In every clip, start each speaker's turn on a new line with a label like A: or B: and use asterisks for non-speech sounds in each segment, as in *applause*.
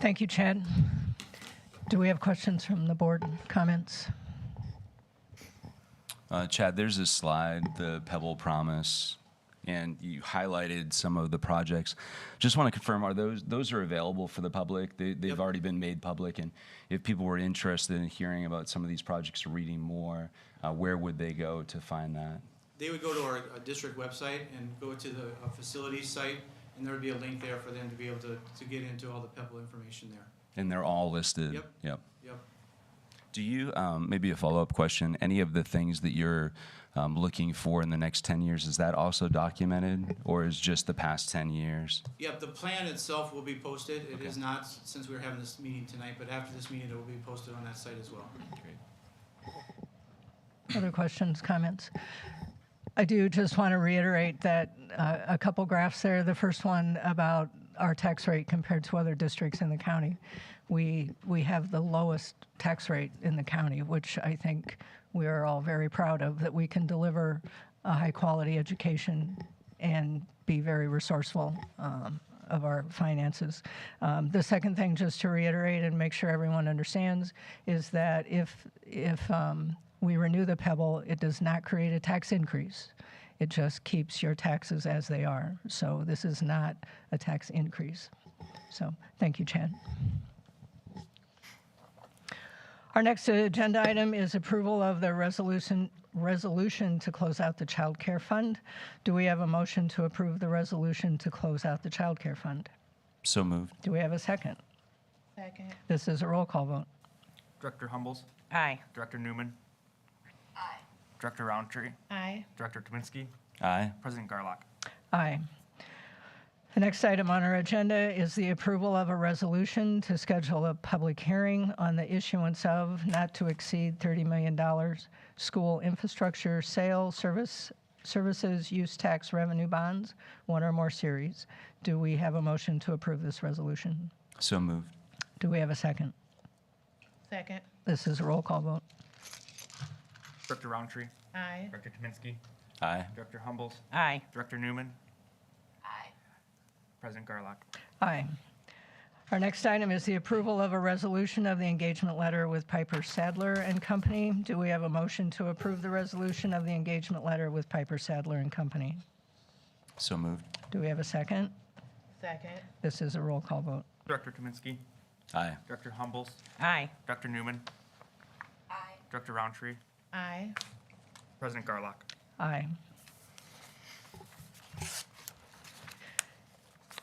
A: Thank you, Chad. Do we have questions from the board, comments?
B: Uh, Chad, there's this slide, the Pebble Promise, and you highlighted some of the projects. Just want to confirm, are those those are available for the public? They, they've already been made public, and if people were interested in hearing about some of these projects or reading more, uh, where would they go to find that?
C: They would go to our uh, district website and go to the uh, facilities site, and there would be a link there for them to be able to, to get into all the Pebble information there.
B: And they're all listed.
C: Yep.
B: Yep.
C: Yep.
B: Do you um, maybe a follow up question? Any of the things that you're um, looking for in the next ten years is that also documented, or is just the past ten years?
C: Yep, the plan itself will be posted. It is not, s- since we're having this meeting tonight, but after this meeting, it will be posted on that site as well.
A: Other questions, comments? I do just want to reiterate that uh, a couple graphs there. The first one about our tax rate compared to other districts in the county. We we have the lowest tax rate in the county, which I think we are all very proud of that we can deliver a high quality education and be very resourceful um, of our finances. Um, the second thing, just to reiterate and make sure everyone understands, is that if if um, we renew the Pebble, it does not create a tax increase. It just keeps your taxes as they are. So this is not a tax increase. So thank you, Chad. Our next agenda item is approval of the resolution, resolution to close out the child care fund. Do we have a motion to approve the resolution to close out the child care fund?
B: So moved.
A: Do we have a second?
D: Second.
A: This is a roll call vote.
E: Director Humbles,
D: Aye.
E: Director Newman. Aye. Director Roundtree,
D: Aye.
E: Director Tominski,
B: Aye.
E: President Garlock.
A: Aye. The next item on our agenda is the approval of a resolution to schedule a public hearing on the issuance of not to exceed $30 million school infrastructure sale service, services use tax revenue bonds, one or more series. Do we have a motion to approve this resolution?
B: So moved.
A: Do we have a second?
D: Second.
A: This is a roll call vote.
E: Director Roundtree,
D: Aye.
E: Director Tominski,
B: Aye.
E: Director Humbles,
D: Aye.
E: Director Newman. Aye. President Garlock.
A: Aye. Our next item is the approval of a resolution of the engagement letter with Piper Sadler and Company. Do we have a motion to approve the resolution of the engagement letter with Piper Sadler and Company?
B: So moved.
A: Do we have a second?
D: Second.
A: This is a roll call vote.
E: Director Tominski,
B: Aye.
E: Director Humbles,
D: Aye.
E: Director Newman. Aye. Director Roundtree,
D: Aye.
E: President Garlock.
A: Aye.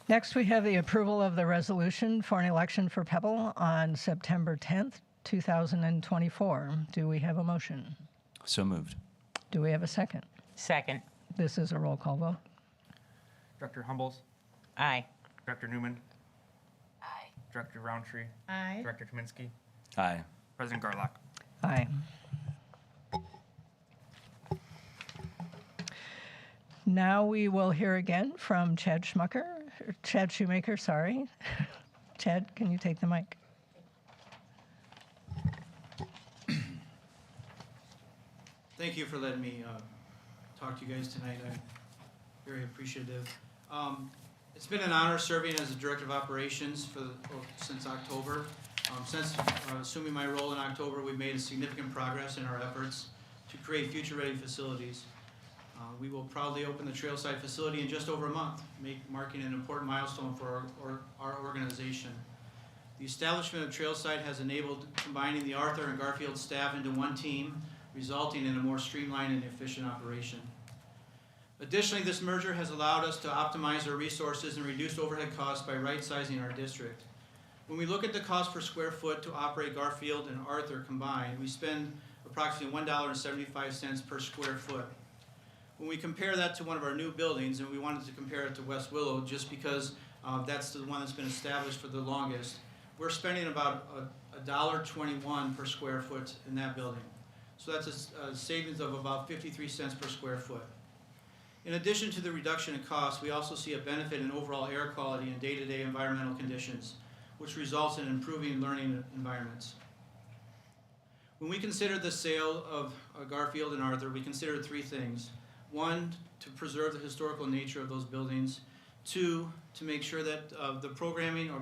A: Next, we have the approval of the resolution for an election for Pebble on September 10th, 2024. Do we have a motion?
B: So moved.
A: Do we have a second?
D: Second.
A: This is a roll call vote.
E: Director Humbles,
D: Aye.
E: Director Newman. Aye. Director Roundtree,
D: Aye.
E: Director Tominski,
B: Aye.
E: President Garlock.
A: Aye. Now we will hear again from Chad Schmucker, or Chad Shoemaker, sorry. *laughs* Chad, can you take the mic?
C: Thank you for letting me uh, talk to you guys tonight. I'm very appreciative. Um, It's been an honor serving as the Director of Operations for, the- oh, since October. Um, Since uh, assuming my role in October, we've made significant progress in our efforts to create future-ready facilities. Uh, We will proudly open the Trailside facility in just over a month, make- marking an important milestone for our- or- our organization. The establishment of Trailside has enabled combining the Arthur and Garfield staff into one team resulting in a more streamlined and efficient operation. Additionally, this merger has allowed us to optimize our resources and reduce overhead costs by right-sizing our district. When we look at the cost per square foot to operate Garfield and Arthur combined, we spend approximately $1.75 per square foot. When we compare that to one of our new buildings, and we wanted to compare it to West Willow just because uh, that's the one that's been established for the longest, we're spending about a $1.21 per square foot in that building. So that's a s- a, savings of about 53 cents per square foot. In addition to the reduction in cost, we also see a benefit in overall air quality and day-to-day environmental conditions, which results in improving learning environments. When we consider the sale of uh, Garfield and Arthur, we consider three things. One, to preserve the historical nature of those buildings. Two, to make sure that uh, the programming or